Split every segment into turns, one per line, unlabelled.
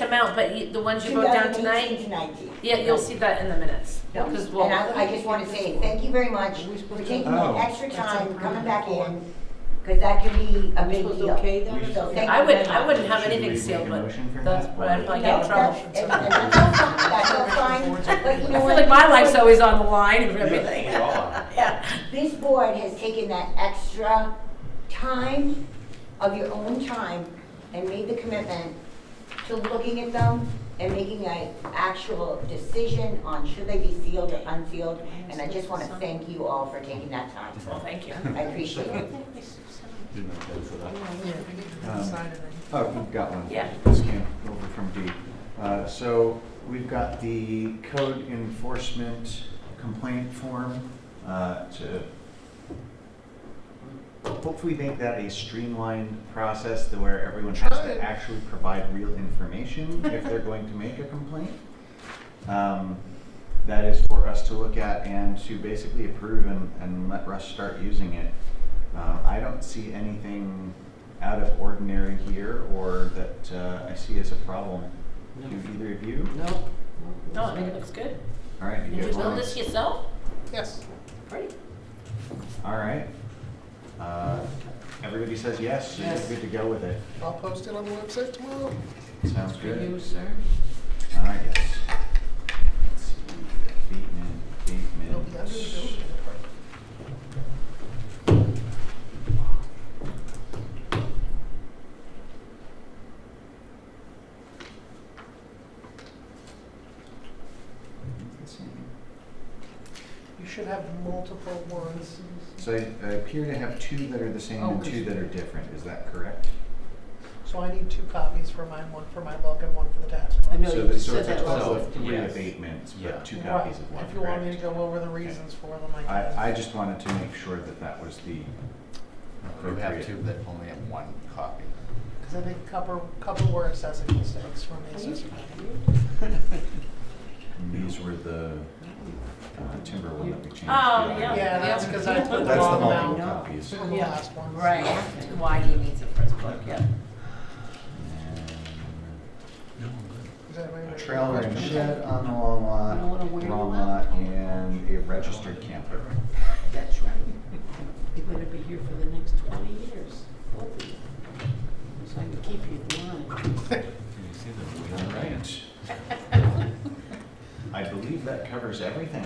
amount, but you- the ones you wrote down
2018
tonight,
to 19.
yeah, you'll see that in the minutes. Because
And
we'll,
I, I just want to say, thank you very much for taking the
Oh.
extra time, coming back in, because that can be a big deal. So thank
I
you
would,
very
I
much.
wouldn't have
Should we
anything
make a
sealed, but
motion for
that's
that?
why I probably get
No,
in
that's,
trouble.
and- and that's all fine, that's all fine, but you
I
know
feel
what?
like my life's always on the line and everything.
Yes, we are.
Yeah.
This board has taken that extra time of your own time and made the commitment to looking at them and making a actual decision on should they be sealed or unsealed. And I just want to thank you all for taking that time.
Well, thank you.
I appreciate it.
Didn't have time for that.
Decided
Oh, we've got one.
Yeah.
This came over from D. Uh, So we've got the code enforcement complaint form uh, to hopefully make that a streamlined process to where everyone has to actually provide real information if they're going to make a complaint. Um, That is for us to look at and to basically approve and, and let Russ start using it. Uh, I don't see anything out of ordinary here or that uh, I see as a problem. Do either of you?
No.
No, I think it looks good.
All right,
Did
you
you
get
build
one.
this yourself?
Yes.
Great.
All right. Uh, Everybody says yes, so
Yes.
you're good to go with it.
I'll post it on the website tomorrow.
Sounds
For you,
good.
sir.
All right, yes. Let's see, Bateman,
It'll be under the
Bateman.
building. You should have multiple ones.
So I I appear to have two that are the same
Oh,
and
good.
two that are different, is that correct?
So I need two copies for mine, one for my book and one for the tax book.
I know
So
you
that-
just
so
said
it's a
that last
total
time.
of three
Yes.
abatements,
Yeah.
but two copies of one,
If you want me to
correct?
go over the reasons for them, I can.
I, I just wanted to make sure that that was the
You have
appropriate.
two that only have one copy.
Because I think a couple, couple were assessing mistakes from the assessor.
And These were the uh, timber one that we changed. the
Oh,
other
yeah.
day.
Yeah, that's because I put the
That's the
wrong
multiple
amount
copies.
on the
Yeah.
last one.
Right, why he needs a first book, yeah.
Does anybody have
And a
any
Trailer and
questions?
shed on the long
You know what
lot,
I'm wearing
wrong
now?
lot, and a registered camper.
That's right. You better be here for the next twenty years, both of you. So I can keep you in line.
All right. I believe that covers everything.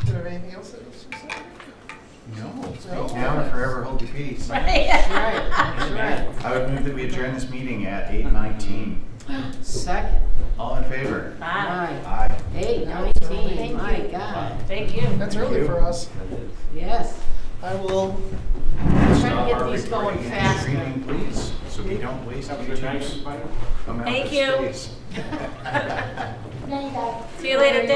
Do you have anything else that needs to be said?
No.
No.
Now and forever hold your peace.
Right.
That's right.
I would move that we adjourn this meeting at eight nineteen.
Second,
All in favor?
Bye.
nine,
Aye.
eight,
Thank
nineteen,
you.
my God,
Thank you.
That's
Thank
early
you.
for us.
yes.
I will
Trying
Stop
to
our
get these going
recording and
faster.
streaming, Please, so we don't waste YouTube's amount of
Thank you.
space.
Night, guys.
See you later,